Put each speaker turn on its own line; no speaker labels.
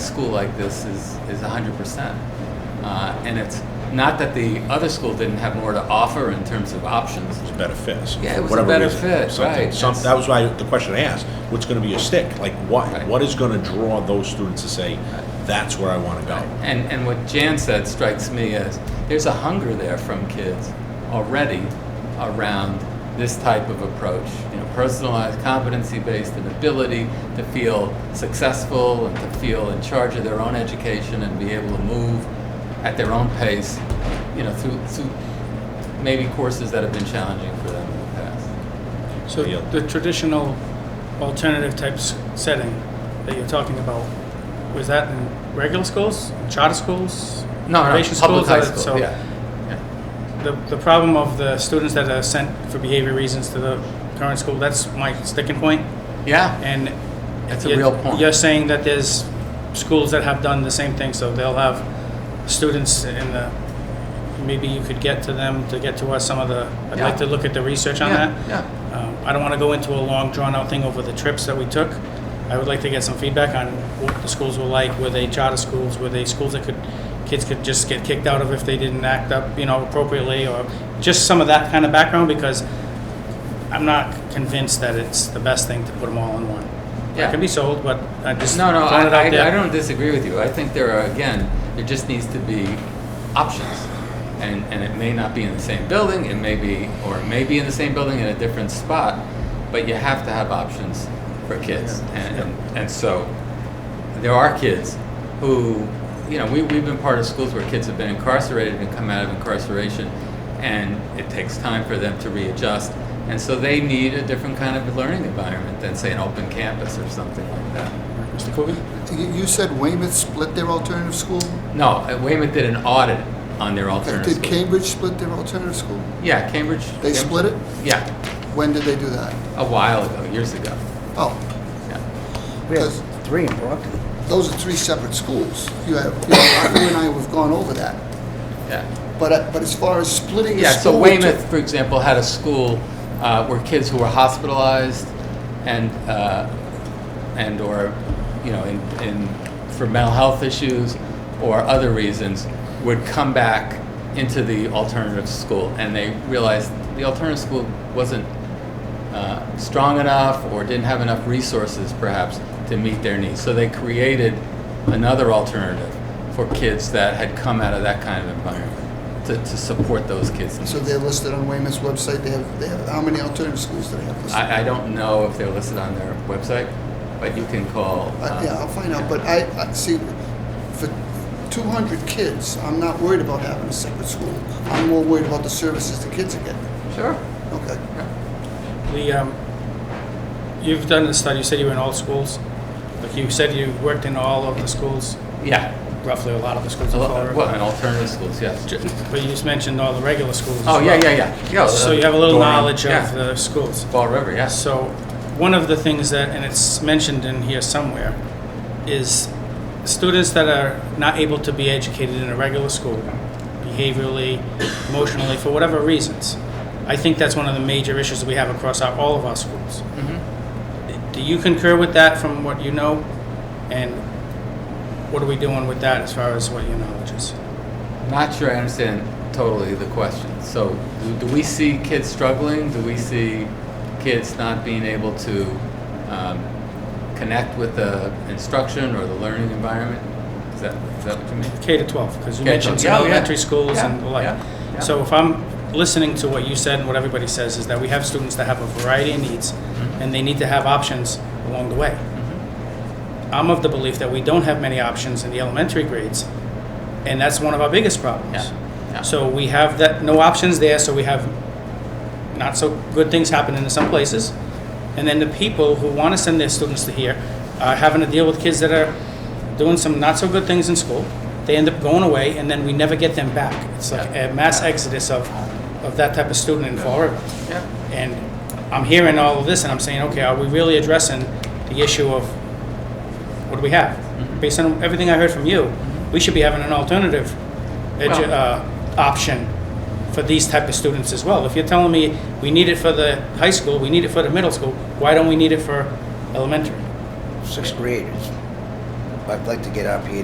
school like this is, is 100%. Uh, and it's not that the other school didn't have more to offer in terms of options.
It's a better fit. so
Yeah, it
for
was a
whatever
better
reason,
fit,
something-
right.
some-
That's-
that was why the question I asked, what's gonna be a stick? Like, what,
Right.
what is gonna draw those students to say, that's where I wanna go?
And, and what Jan said strikes me as there's a hunger there from kids already around this type of approach. You know, personalized, competency based, and ability to feel successful and to feel in charge of their own education and be able to move at their own pace, you know, through, through maybe courses that have been challenging for them in the past.
So
Yeah.
the traditional alternative types setting that you're talking about, was that in regular schools, charter schools?
No, no,
foundation
public
schools,
high
uh,
school,
so-
yeah. yeah.
The, the problem of the students that are sent for behavior reasons to the current school, that's my sticking point,
Yeah,
and.
That's a
you're-
real point.
You're saying that there's schools that have done the same thing, so they'll have students in the, maybe you could get to them, to get to us some of the, I'd
Yeah.
like to look at the research on
Yeah,
that.
yeah.
Um, I don't want to go into a long, drawn-out thing over the trips that we took. I would like to get some feedback on what the schools were like. Were they charter schools? Were they schools that could, kids could just get kicked out of if they didn't act up, you know, appropriately? Or just some of that kind of background, because I'm not convinced that it's the best thing to put them all in one.
Yeah.
I can be sold, but I just
No, no,
throwing
I,
it out
I, I
there.
don't disagree with you. I think there are, again, there just needs to be options. And, and it may not be in the same building, it may be, or it may be in the same building in a different spot, but you have to have options for kids. And, and, and so, there are kids who, you know, we, we've been part of schools where kids have been incarcerated and come out of incarceration, and it takes time for them to readjust. And so they need a different kind of learning environment than, say, an open campus or something like that.
Mr. Coogan?
You you said Weymouth split their alternative school?
No, uh, Weymouth did an audit on their alternative
Did
school.
Cambridge split their alternative school?
Yeah, Cambridge.
They
Cambridge-
split it?
Yeah,
When did they do that?
a while ago, years ago.
Oh,
Yeah.
We have
Because-
three in Brockton.
those are three separate schools. You have, you have- you and I have gone over that.
Yeah,
But, uh, but as far as splitting a
yeah
school.
so
to-
Weymouth, for example, had a school uh, where kids who were hospitalized and, uh, and or, you know, in, in, for mental health issues or other reasons would come back into the alternative school and they realized the alternative school wasn't uh, strong enough or didn't have enough resources perhaps to meet their needs. So they created another alternative for kids that had come out of that kind of environment to, to support those kids.
So they're listed on Weymouth's website, they have, they have, how many alternative schools do they have listed?
I, I don't know if they're listed on their website, but you can call.
Uh,
uh,
Yeah, I'll find out, but I, I, see, for two hundred kids, I'm not worried about having a separate school. I'm more worried about the services the kids are getting.
Sure.
Okay.
The, um, you've done the study, you said you were in all schools. Like you said you worked in all of the schools,
Yeah.
roughly a lot of the schools in Florida.
Well, and alternative schools, yes.
Ju- But you just mentioned all the regular schools as
Oh, yeah,
well.
yeah, yeah. yeah
So
uh,
you have a little
Durham,
knowledge
yeah.
of the schools.
Fall River, yes.
So one of the things that, and it's mentioned in here somewhere, is students that are not able to be educated in a regular school, behaviorally, emotionally, for whatever reasons. I think that's one of the major issues that we have across our, all of our schools. Do you concur with that from what you know? And what are we doing with that as far as what your knowledge is?
Not sure I understand totally the question. So, do- do we see kids struggling? Do we see kids not being able to um, connect with the instruction or the learning environment? Is that, is that what you mean?
K to 12, because you
K to 12,
mentioned some
yeah, yeah.
elementary schools and
Yeah,
the like.
yeah, yeah.
So if I'm listening to what you said and what everybody says, is that we have students that have a variety of needs,
Mm-hmm.
and they need to have options along the way.
Mm-hmm.
I'm of the belief that we don't have many options in the elementary grades, and that's one of our biggest
Yeah,
problems.
yeah.
So we have that, no options there, so we have not so good things happening in some places. And then the people who want to send their students to here are having to deal with kids that are doing some not so good things in school. They end up going away, and then we never get them back. It's like a mass exodus of, of that type of student in Fall River.
Yeah.
And I'm hearing all of this, and I'm saying, okay, are we really addressing the issue of what do we have? Based on everything I heard from you, we should be having an alternative edu-
Well-
uh, option for these type of students as well. If you're telling me we need it for the high school, we need it for the middle school, why don't we need it for elementary?
sixth graders. I'd like to get RPA